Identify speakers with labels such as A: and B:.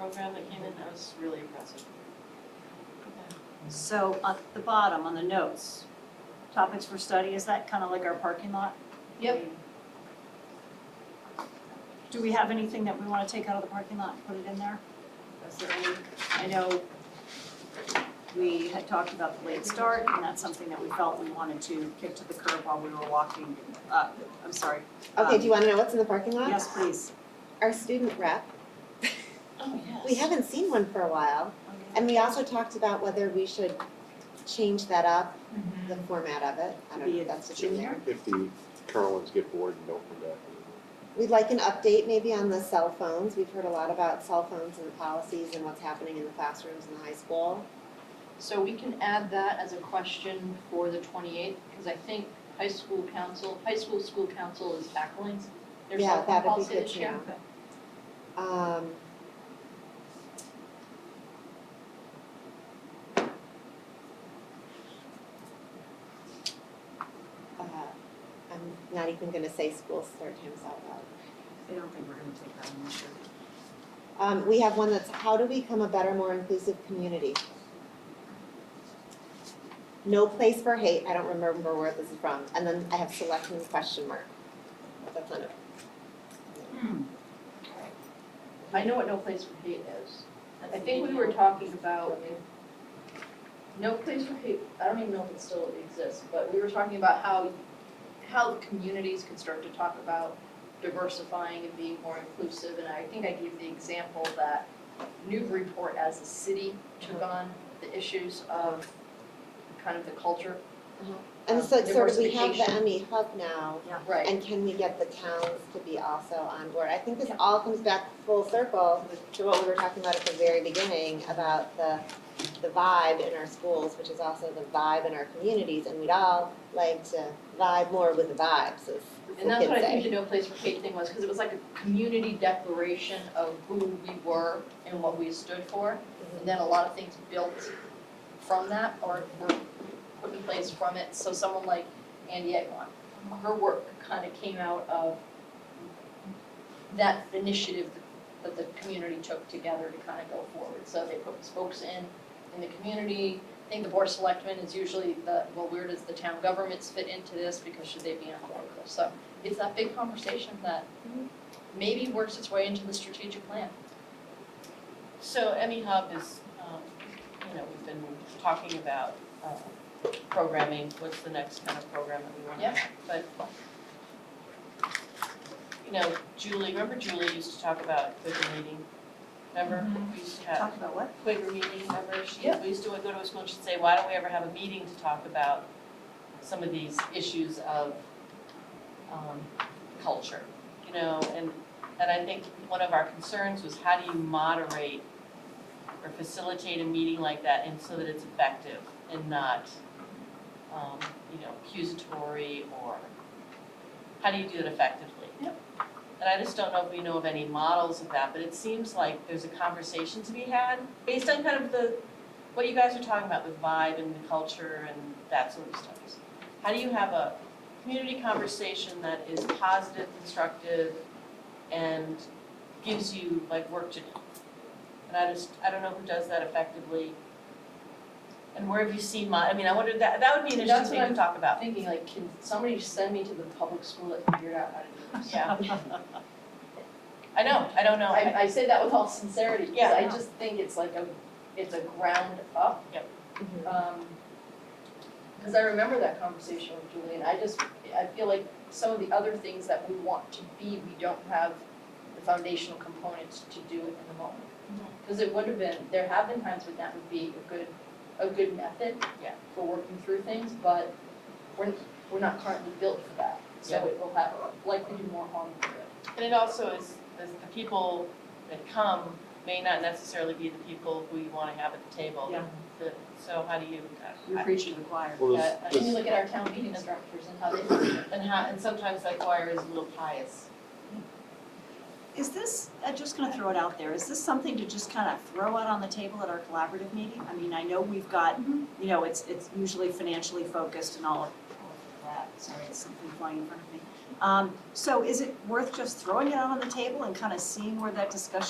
A: and that was really impressive.
B: So at the bottom, on the notes, topics for study, is that kind of like our parking lot?
A: Yep.
B: Do we have anything that we want to take out of the parking lot and put it in there?
A: That's the only,
B: I know we had talked about the late start, and that's something that we felt we wanted to kick to the curb while we were walking up. I'm sorry.
C: Okay,
B: Um,
C: do you wanna know what's in the parking lot?
B: Yes, please.
C: Our student rep,
A: oh, yes.
C: we haven't seen one for a while, and we also talked about whether we should change that up, the format of it, I don't know
B: Mm-hmm. Be
C: if
B: a
C: that's what's in there.
B: junior?
D: If the current ones get bored and don't come back anymore.
C: We'd like an update maybe on the cell phones, we've heard a lot about cell phones and the policies and what's happening in the classrooms in the high school.
A: So we can add that as a question for the twenty-eighth, because I think high school council, high school school council is tackling their
C: Yeah,
A: cell phone
C: that'd be
A: policy
C: good
A: this
C: to
A: year.
C: know. Um. Uh, I'm not even gonna say school start times out loud.
B: I don't think we're going to take that one this year.
C: Um, we have one that's how to become a better, more inclusive community. No place for hate, I don't remember where this is from, and then I have selection question mark. That's not it.
B: Hmm.
A: I know what No Place for Hate is. I think we were talking about, No Place for Hate, I don't even know if it still exists, but we were talking about how, how the communities could start to talk about diversifying and being more inclusive, and I think I gave the example that Newburyport as a city took on the issues of kind of the culture.
C: And it's like sort of, we have the
A: Diversification.
C: ME hub now,
A: Right.
C: and can we get the towns to be also on board? I think this all comes back full circle to what we were talking about at the very beginning about the, the vibe in our schools, which is also the vibe in our communities, and we'd all like to vibe more with the vibes, as as the kids say.
A: And that's what I think the No Place for Hate thing was, because it was like a community declaration of who we were and what we stood for. And then a lot of things built from that or were put in place from it. So someone like Andy Egwan, her work kind of came out of that initiative that the community took together to kind of go forward. So they put spokes in, in the community. I think the board of selectmen is usually the, well, where does the town governments fit into this? Because should they be on board with this? So it's that big conversation that maybe works its way into the strategic plan.
E: So ME Hub is, um, you know, we've been talking about, uh, programming, what's the next kind of program that we wanna
A: Yep.
E: have, but you know, Julie, remember Julie used to talk about Quaker meeting? Remember, we used to have
B: Talk about what?
E: Quaker meeting, remember, she,
A: Yep.
E: we used to go to a school, and she'd say, why don't we ever have a meeting to talk about some of these issues of, um, culture, you know, and, and I think one of our concerns was how do you moderate or facilitate a meeting like that and so that it's effective and not, um, you know, accusatory or, how do you do it effectively?
A: Yep.
E: And I just don't know if we know of any models of that, but it seems like there's a conversation to be had based on kind of the, what you guys are talking about with vibe and the culture and that sort of stuff. How do you have a community conversation that is positive, constructive, and gives you like work to do? And I just, I don't know who does that effectively. And where have you seen my, I mean, I wonder, that, that would be an
A: That's
E: interesting
A: what
E: thing to talk about.
A: Thinking like, can somebody send me to the public school that figured out how to do this?
E: Yeah. I know, I don't know, I,
A: I, I say that with all sincerity, because
E: Yeah.
A: I just think it's like a, it's a ground up.
E: Yep.
A: Um, because I remember that conversation with Julie, and I just, I feel like some of the other things that we want to be, we don't have the foundational components to do it in the moment.
E: Mm-hmm.
A: Because it would have been, there have been times when that would be a good, a good method.
E: Yeah.
A: For working through things, but we're, we're not currently built for that, so
E: Yeah.
A: it will have, likely do more harm than good.
E: and it also is, is the people that come may not necessarily be the people who you wanna have at the table.
B: Yeah.
E: The- So how do you,
B: You're preaching to the choir.
D: Well,
E: Yeah, I
D: this,
A: Can you
D: this,
A: look at our town meeting structures and how they,
E: and how, and sometimes that choir is a little pious.
B: Is this, I'm just gonna throw it out there, is this something to just kind of throw out on the table at our collaborative meeting? I mean, I know we've got, you know, it's, it's usually financially focused and all of all of that, sorry, it's something flying in front of me. Um, so is it worth just throwing it out on the table and kind of seeing where that discussion